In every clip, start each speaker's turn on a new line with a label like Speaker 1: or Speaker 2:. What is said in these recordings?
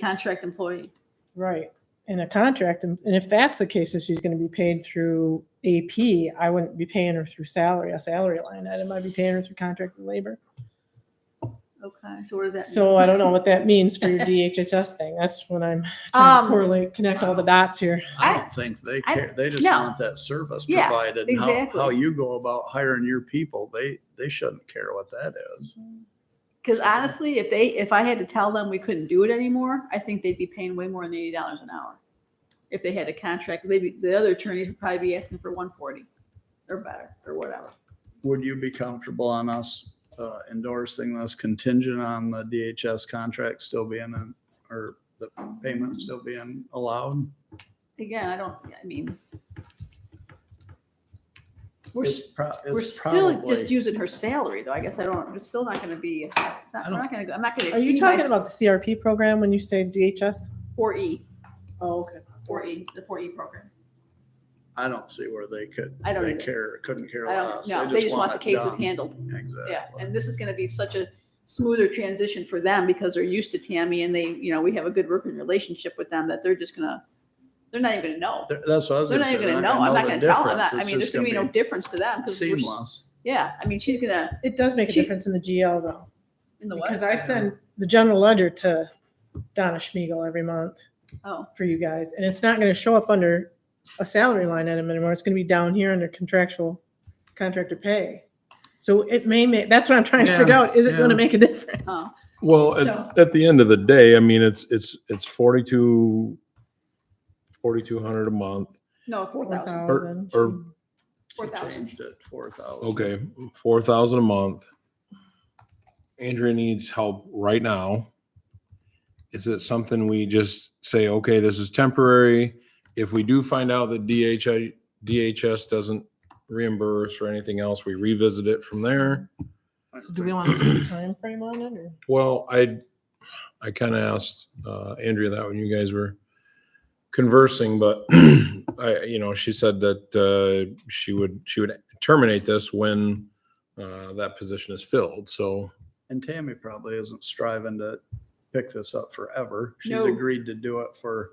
Speaker 1: contract employee.
Speaker 2: Right. And a contract, and and if that's the case, if she's gonna be paid through AP, I wouldn't be paying her through salary, a salary line item. I'd be paying her through contract and labor.
Speaker 1: Okay, so what does that?
Speaker 2: So
Speaker 1: mean?
Speaker 2: I don't know what that means for your DHHS thing. That's when I'm trying
Speaker 1: Um,
Speaker 2: to correlate, connect all the dots here.
Speaker 1: I-
Speaker 3: I don't think they
Speaker 1: I-
Speaker 3: care. They just
Speaker 1: no.
Speaker 3: want that service
Speaker 1: Yeah,
Speaker 3: provided. and How, how
Speaker 1: exactly.
Speaker 3: you go about hiring your people, they, they shouldn't care what that is.
Speaker 1: Because honestly, if they, if I had to tell them we couldn't do it anymore, I think they'd be paying way more than eighty dollars an hour. If they had a contract, they'd be, the other attorneys would probably be asking for one forty or better or whatever.
Speaker 3: Would you be comfortable on us uh, endorsing this contingent on the DHS contract still being in, or the payment still being allowed?
Speaker 1: Again, I don't, I mean. We're,
Speaker 3: It's
Speaker 1: s-
Speaker 3: pro-
Speaker 1: we're
Speaker 3: it's
Speaker 1: still just
Speaker 3: probably,
Speaker 1: using her salary though. I guess I don't, it's still not gonna be, it's not,
Speaker 3: I
Speaker 1: we're
Speaker 3: don't-
Speaker 1: not gonna go, I'm not gonna
Speaker 2: Are you
Speaker 1: exceed my
Speaker 2: talking about the CRP program when you say DHS?
Speaker 1: four E,
Speaker 2: Oh, okay.
Speaker 1: four E, the four E program.
Speaker 3: I don't see where they could,
Speaker 1: I don't
Speaker 3: they
Speaker 1: either.
Speaker 3: care, couldn't care
Speaker 1: I don't,
Speaker 3: less.
Speaker 1: no, they just want the
Speaker 3: it
Speaker 1: cases
Speaker 3: done.
Speaker 1: handled. Yeah,
Speaker 3: Exactly.
Speaker 1: and this is gonna be such a smoother transition for them because they're used to Tammy and they, you know, we have a good working relationship with them that they're just gonna, they're not even gonna know.
Speaker 3: They're- That's what I was
Speaker 1: They're not
Speaker 3: gonna say.
Speaker 1: even gonna
Speaker 3: They're
Speaker 1: know. I'm not
Speaker 3: the
Speaker 1: gonna tell them
Speaker 3: difference.
Speaker 1: that. I
Speaker 3: It's
Speaker 1: mean, there's
Speaker 3: just
Speaker 1: gonna be no difference to them.
Speaker 3: be
Speaker 1: 'cause we're s-
Speaker 3: Seamless.
Speaker 1: Yeah, I mean, she's gonna,
Speaker 2: It does make a
Speaker 1: She-
Speaker 2: difference in the GL though,
Speaker 1: in the
Speaker 2: because
Speaker 1: what?
Speaker 2: I send the general ledger to Donna Schmiegel every month.
Speaker 1: Oh,
Speaker 2: for you guys, and it's not gonna show up under a salary line item anymore, it's gonna be down here under contractual, contractor pay. So it may make, that's what I'm trying to figure
Speaker 3: Yeah,
Speaker 2: out, is it gonna
Speaker 3: yeah.
Speaker 2: make a difference?
Speaker 1: oh,
Speaker 4: Well,
Speaker 2: So-
Speaker 4: at, at the end of the day, I mean, it's, it's, it's forty-two, forty-two hundred a month.
Speaker 1: no, four thousand,
Speaker 4: or-
Speaker 1: four thousand.
Speaker 3: Changed it, four thousand.
Speaker 4: Okay, four thousand a month. Andrea needs help right now. Is it something we just say, okay, this is temporary? If we do find out that DHI, DHS doesn't reimburse or anything else, we revisit it from there?
Speaker 2: So Do we want to put a timeframe on it, or?
Speaker 4: Well, I, I kind of asked uh, Andrea that when you guys were conversing, but I, you know, she said that uh, she would, she would terminate this when uh, that position is filled. So
Speaker 3: And Tammy probably isn't striving to pick this up forever. She's
Speaker 1: No.
Speaker 3: agreed to do it for,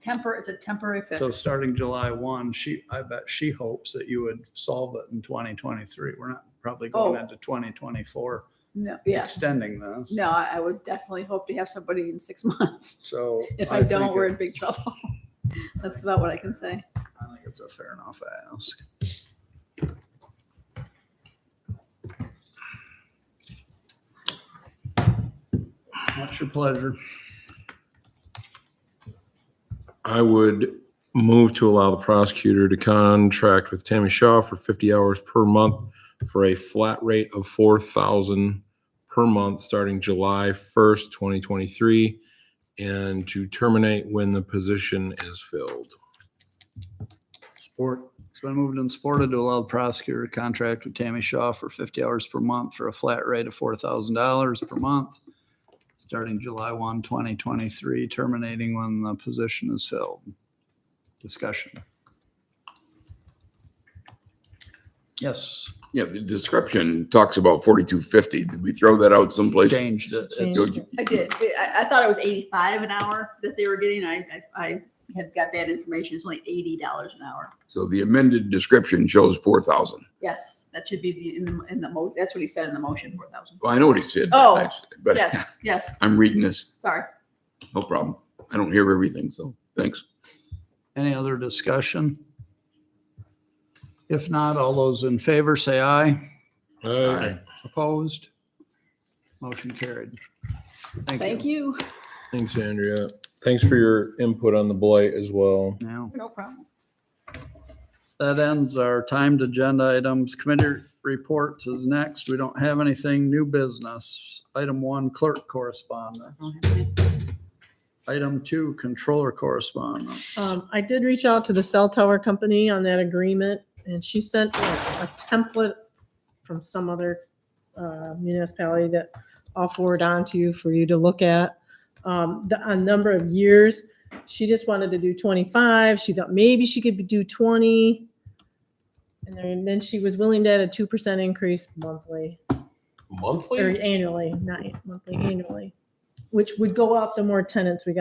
Speaker 1: Temper, it's a temporary
Speaker 3: so
Speaker 1: fix.
Speaker 3: starting July one, she, I bet she hopes that you would solve it in twenty twenty-three. We're not probably going
Speaker 1: Oh.
Speaker 3: into twenty twenty-four,
Speaker 1: No, yeah,
Speaker 3: extending this.
Speaker 1: no, I I would definitely hope to have somebody in six months.
Speaker 3: So.
Speaker 1: If I don't,
Speaker 3: think
Speaker 1: we're
Speaker 3: it-
Speaker 1: in big trouble. That's about what I can say.
Speaker 3: I think it's a fair enough ask. What's your pleasure?
Speaker 4: I would move to allow the prosecutor to contract with Tammy Shaw for 50 hours per month for a flat rate of 4,000 per month starting July 1st, 2023, and to terminate when the position is filled.
Speaker 3: Support. It's been moved and supported to allow the prosecutor to contract with Tammy Shaw for fifty hours per month for a flat rate of four thousand dollars per month, starting July 1, 2023, terminating when the position is filled. Discussion. Yes,
Speaker 5: Yeah, the description talks about forty-two fifty. Did we throw that out someplace?
Speaker 3: changed it. It's-
Speaker 2: Changed
Speaker 1: I did. I- I, I thought it was eighty-five an hour that they were getting. I, I, I had got bad information. It's only eighty dollars an hour.
Speaker 5: So the amended description shows four thousand.
Speaker 1: Yes, that should be the, in the, in the mo, that's what he said in the motion, four thousand.
Speaker 5: Well, I know what he said.
Speaker 1: Oh,
Speaker 5: I- But
Speaker 1: Yes, yes,
Speaker 5: I'm reading this,
Speaker 1: sorry.
Speaker 5: no problem. I don't hear everything, so thanks.
Speaker 3: Any other discussion? If not, all those in favor say aye.
Speaker 5: Aye.
Speaker 3: Opposed? Motion carried. Thank you.
Speaker 1: Thank you.
Speaker 4: Thanks, Andrea. Thanks for your input on the blight as well.
Speaker 3: Now.
Speaker 1: No problem.
Speaker 3: That ends our timed agenda items. Committee reports is next. We don't have anything new business. Item one, clerk correspondence. Item two, controller correspondence.
Speaker 2: Um, I did reach out to the cell tower company on that agreement, and she sent a a template from some other uh, municipality that I'll forward on to you for you to look at. Um, the, a number of years, she just wanted to do twenty-five, she thought maybe she could do twenty. And then, and then she was willing to add a two percent increase monthly, or
Speaker 4: Monthly?
Speaker 2: annually, not monthly, annually. which would go up the more tenants we got.